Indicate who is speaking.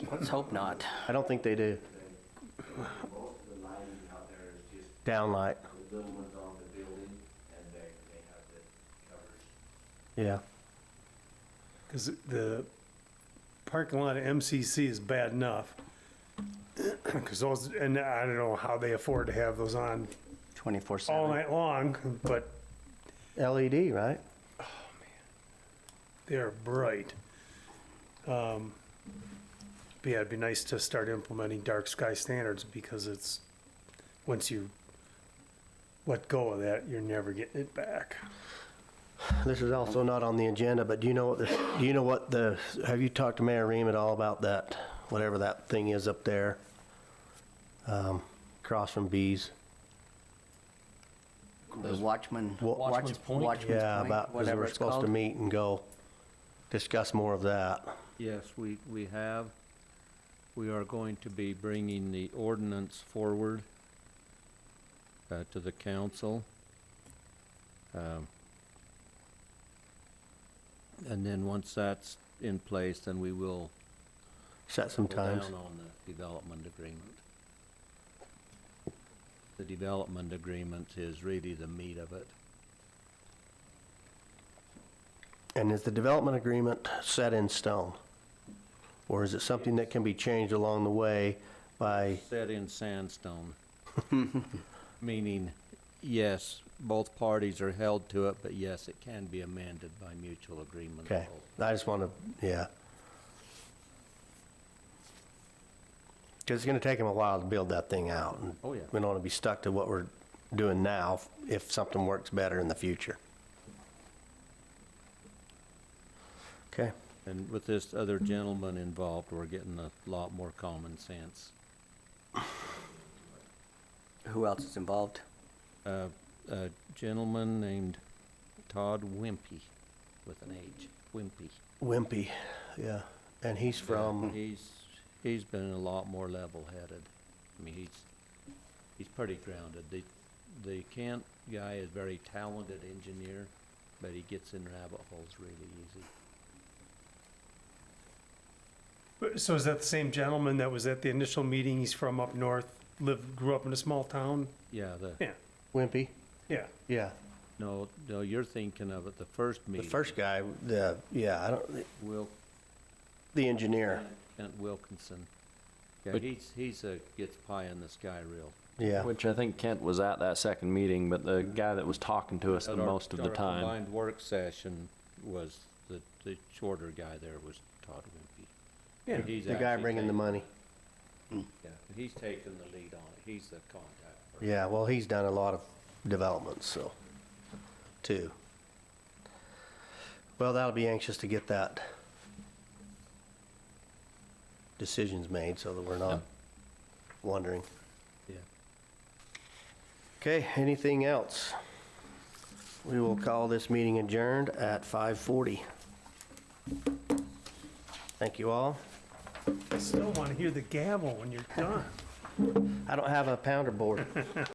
Speaker 1: Let's hope not.
Speaker 2: I don't think they do.
Speaker 3: Most of the lighting out there is just
Speaker 2: Downlight,
Speaker 3: the little ones on the building, and they, they have the covers.
Speaker 2: yeah.
Speaker 4: Because the parking lot at MCC is bad enough. Because those, and I don't know how they afford to have those on
Speaker 1: Twenty-four
Speaker 4: all
Speaker 1: seven.
Speaker 4: night long, but
Speaker 2: LED, E right?
Speaker 4: they're bright. Um, But yeah, it'd be nice to start implementing dark sky standards because it's, once you let go of that, you're never getting it back.
Speaker 2: This is also not on the agenda, but do you know what this, do you know what the, have you talked to Mayor Ream at all about that? Whatever that thing is up there, um, across from Bees?
Speaker 1: The watchman.
Speaker 2: Wa-
Speaker 1: watch-
Speaker 5: Watchman's Point?
Speaker 1: Watchman's
Speaker 2: Yeah,
Speaker 1: Point,
Speaker 2: about, because
Speaker 1: whatever
Speaker 2: we're
Speaker 1: it's
Speaker 2: supposed to
Speaker 1: called.
Speaker 2: meet and go discuss more of that.
Speaker 5: Yes, we, we have. We are going to be bringing the ordinance forward uh, to the council. Um, And then once that's in place, then we will
Speaker 2: Set some
Speaker 5: go
Speaker 2: times.
Speaker 5: down on the development agreement. The development agreement is really the meat of it.
Speaker 2: And is the development agreement set in stone? Or is it something that can be changed along the way by,
Speaker 5: Set in sandstone. Meaning, yes, both parties are held to it, but yes, it can be amended by mutual agreement.
Speaker 2: okay, I just want to, yeah. Because it's going to take them a while to build that thing out. and
Speaker 5: Oh, yeah.
Speaker 2: We don't want to be stuck to what we're doing now if something works better in the future. Okay,
Speaker 5: And with this other gentleman involved, we're getting a lot more common sense.
Speaker 1: Who else is involved?
Speaker 5: Uh, A gentleman named Todd Wimpy, with an H, Wimpy.
Speaker 2: Wimpy, yeah, and he's from,
Speaker 5: He's, he's been a lot more level-headed. I mean, he's, he's pretty grounded. The, the Kent guy is very talented engineer, but he gets in rabbit holes really easy.
Speaker 4: But- So is that the same gentleman that was at the initial meeting? He's from up north, lived, grew up in a small town?
Speaker 5: Yeah, the,
Speaker 4: Yeah,
Speaker 2: Wimpy,
Speaker 4: yeah.
Speaker 2: yeah.
Speaker 5: no, no, you're thinking of it, the first
Speaker 2: The
Speaker 5: meeting.
Speaker 2: first guy, the, yeah, I don't,
Speaker 5: Wil,
Speaker 2: the engineer,
Speaker 5: Kent Wilkinson. Yeah,
Speaker 6: But-
Speaker 5: he's, he's a, gets pie in the sky real.
Speaker 2: yeah.
Speaker 6: Which I think Kent was at that second meeting, but the guy that was talking to us the
Speaker 5: At our-
Speaker 6: most of the
Speaker 5: Our
Speaker 6: time.
Speaker 5: combined work session was, the, the shorter guy there was Todd Wimpy.
Speaker 4: Yeah.
Speaker 5: And he's
Speaker 2: The guy
Speaker 5: actually
Speaker 2: bringing the
Speaker 5: taken-
Speaker 2: money.
Speaker 5: Yeah, he's taken the lead on it. He's the contact. person.
Speaker 2: Yeah, well, he's done a lot of developments, so, too. Well, that'll be anxious to get that decisions made so that we're not wondering. Okay, anything else? We will call this meeting adjourned at 5:40. Thank you all.
Speaker 4: I still want to hear the gavel when you're done.
Speaker 2: I don't have a pounder board.